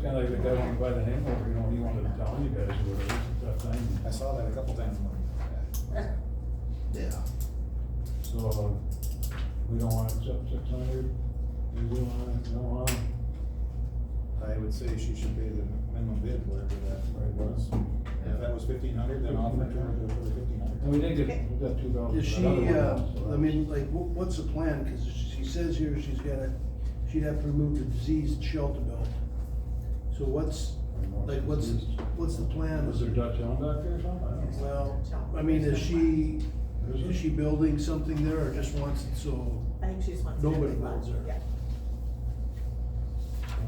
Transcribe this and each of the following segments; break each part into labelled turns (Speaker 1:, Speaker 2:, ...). Speaker 1: kinda like the guy wanted to buy the hangover, you know, he wanted to tell you guys what it was, it's that thing.
Speaker 2: I saw that a couple times.
Speaker 3: Yeah.
Speaker 1: So, uh, we don't wanna accept six hundred, we will, wanna- we don't wanna,
Speaker 2: I would say she should pay the minimum bid, whatever that rate was. If that was fifteen hundred, then offer to her for fifteen
Speaker 1: and we
Speaker 2: hundred.
Speaker 1: did get, we got two dollars.
Speaker 3: Is she, uh, I mean, like, wha- what's the plan? Cause she says here she's gotta, she'd have to remove the diseased shelter belt. So what's, like, what's, what's the plan?
Speaker 1: Was there Dutch on back there or something? I don't know.
Speaker 3: Well, I mean, is she, is she building something there or just wants it so?
Speaker 4: I think she just wants.
Speaker 3: Nobody
Speaker 4: everyone.
Speaker 3: builds her.
Speaker 4: Yeah.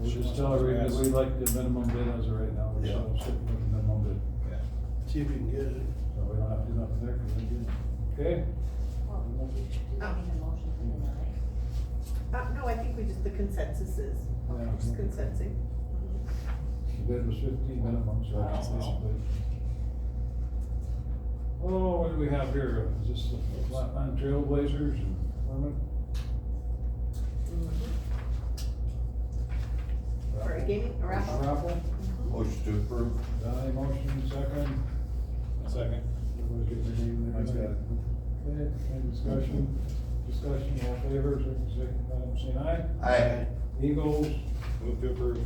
Speaker 1: We'll just tell her that we like the minimum bid as of right now, we're
Speaker 3: Yeah.
Speaker 1: still sitting with the minimum bid,
Speaker 2: Yeah.
Speaker 3: See if you can get it.
Speaker 1: so we don't have to do nothing there, cause they did. Okay?
Speaker 5: Well, we do not need a motion for the night.
Speaker 4: Uh, no, I think we just, the consensus is,
Speaker 1: Yeah.
Speaker 4: just consensing.
Speaker 1: The bid was fifteen minimum, so I guess basically. Oh, what do we have here? Is this the Flatland Trailblazers and Furman?
Speaker 4: For a game, a raffle?
Speaker 1: Raffle?
Speaker 6: Motion to approve.
Speaker 1: Donnie motion, second.
Speaker 2: Second.
Speaker 1: Everybody get their name and
Speaker 2: Mike's got
Speaker 1: everything.
Speaker 2: it.
Speaker 1: Okay, any discussion? Discussion, all in favor, signify by saying aye.
Speaker 6: Aye.
Speaker 1: Eagles,
Speaker 2: Move to approve.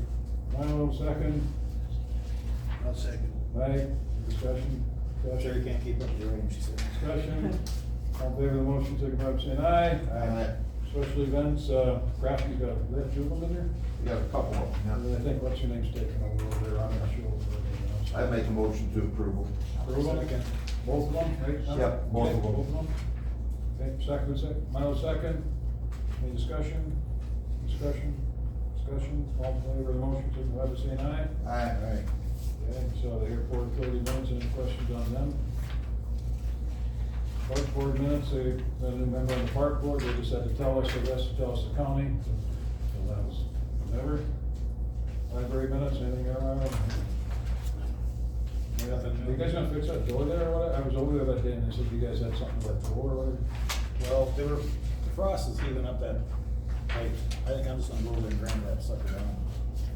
Speaker 1: Milo, second.
Speaker 3: I'll second.
Speaker 1: Aye, discussion. discussion.
Speaker 2: Sherry can't keep up with the rain, she said.
Speaker 1: Discussion, all in favor of the motion, signify by saying aye.
Speaker 6: Aye.
Speaker 1: Special events, uh, Craft, you got, is that Jubil in there?
Speaker 6: We got a couple of
Speaker 1: And then I
Speaker 6: them.
Speaker 1: think, what's your name's taken over over there, I'm not sure.
Speaker 6: yeah. I make a motion to approve.
Speaker 1: Approve them again? Both of them, right? Tom?
Speaker 6: Yep, both of them.
Speaker 1: Okay, Okay, second, second, Milo second, any discussion, discussion, discussion, all in favor of the motion, signify by saying aye.
Speaker 6: Aye.
Speaker 1: Okay, so the airport authority minutes, any questions on them? Park board minutes, they, the new member on the park board, they just had to tell us, they just tell us the county, so that was never. Library minutes, anything around?
Speaker 2: Nothing new.
Speaker 1: You guys gonna fix that door there or what? I was over there that day and they said you guys had something about the door or whatever.
Speaker 2: Well, they were, the frost is heaving up that, like, I think I'm just gonna go over and grind that sucker down.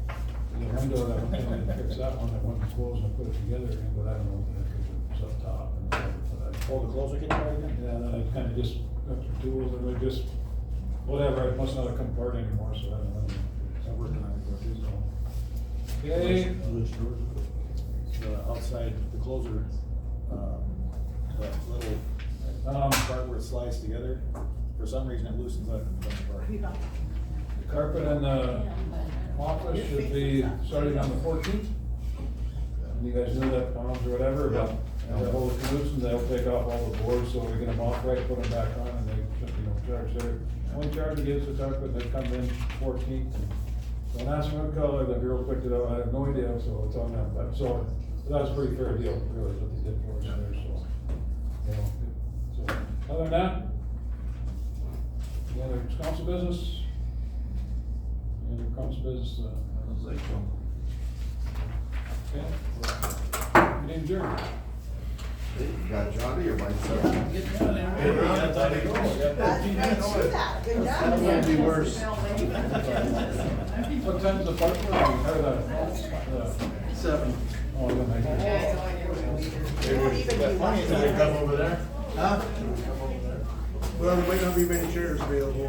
Speaker 1: The window that went in, they fixed that one, that one closed and put it together again, but I don't know if it was up top and whatever, but I.
Speaker 2: Hold Oh, the closer, can you try again?
Speaker 1: Yeah, then I kinda just got the tools and I just, whatever, it must not have come apart anymore, so I don't know.
Speaker 2: I worked on it for a few, so.
Speaker 1: Okay,
Speaker 2: The outside, the closer, um, that little
Speaker 1: um,
Speaker 2: part where it slides together, for some reason it loosens up and comes apart.
Speaker 4: You know,
Speaker 1: the carpet in the office should be starting on the fourteenth. And you guys know that bombs or whatever, but
Speaker 6: Yeah.
Speaker 1: the whole canoes and they'll take off all the boards, so we get them off right, put them back on and they should, you know, charge their, only charge it is the carpet, they come in fourteenth. When I asked what color, the girl picked it up, I have no idea, so it's on them, but so, that was a pretty fair deal, really, what they did for us there, so. you know, So, other than that, any other council business? Any other council business, uh,
Speaker 6: Sounds like um, so.
Speaker 1: Okay. You didn't jerk.
Speaker 6: Hey, You got Johnny or myself?
Speaker 2: Hey, that's how they go.
Speaker 4: That's, that's true that, good
Speaker 3: That might
Speaker 4: job.
Speaker 3: be worse.
Speaker 1: What time's the park run? Or the- uh,
Speaker 3: Seven.
Speaker 1: Oh, yeah, I guess.
Speaker 4: You won't even be watching.
Speaker 2: over there?
Speaker 3: Huh? Well, there might not be many chairs available.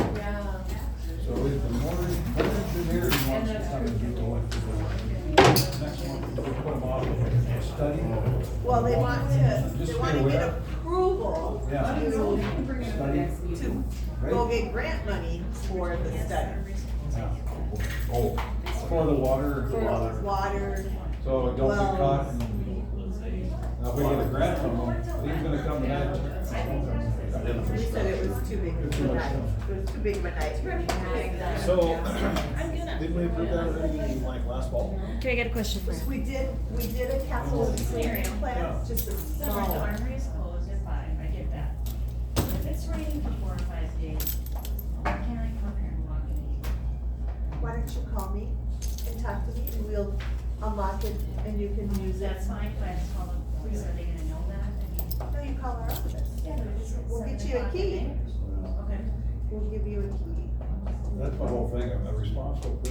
Speaker 1: So if the more, more engineering wants to come and do the work, next month, we put them off, study.
Speaker 4: Well, they want to,
Speaker 1: Just
Speaker 4: they
Speaker 1: be
Speaker 4: want to get
Speaker 1: aware.
Speaker 4: approval
Speaker 1: Yeah.
Speaker 4: to
Speaker 1: Study.
Speaker 4: go
Speaker 1: Right?
Speaker 4: get grant money for the study.
Speaker 1: Yeah.
Speaker 6: Oh.
Speaker 1: For the water.
Speaker 4: For water,
Speaker 1: So don't
Speaker 4: Well-
Speaker 1: be caught. in- Now, if we get a grant from him, he's gonna come tonight.
Speaker 4: he said it was too big of a night, it was too big of a night.
Speaker 2: So, didn't we approve that already, like last fall?
Speaker 7: Can I get a question for you?
Speaker 4: We did, we did a capital clearing class, just a
Speaker 5: So when the
Speaker 4: small one.
Speaker 5: armory is closed at five, I get that. If it's raining for four or five days, why can't I come here and walk in the
Speaker 4: Why don't you call me and talk to me and we'll unlock it and you can use
Speaker 5: evening?
Speaker 4: that
Speaker 5: That's
Speaker 4: sign.
Speaker 5: fine, but I just call the police, are they gonna know that? I mean,
Speaker 4: No, you call our office.
Speaker 5: yeah, but if it's at
Speaker 4: We'll get
Speaker 5: seven
Speaker 4: you a
Speaker 5: o'clock at
Speaker 4: key.
Speaker 5: night. Okay.
Speaker 4: We'll give you a key.
Speaker 1: That's my whole thing, I'm responsible for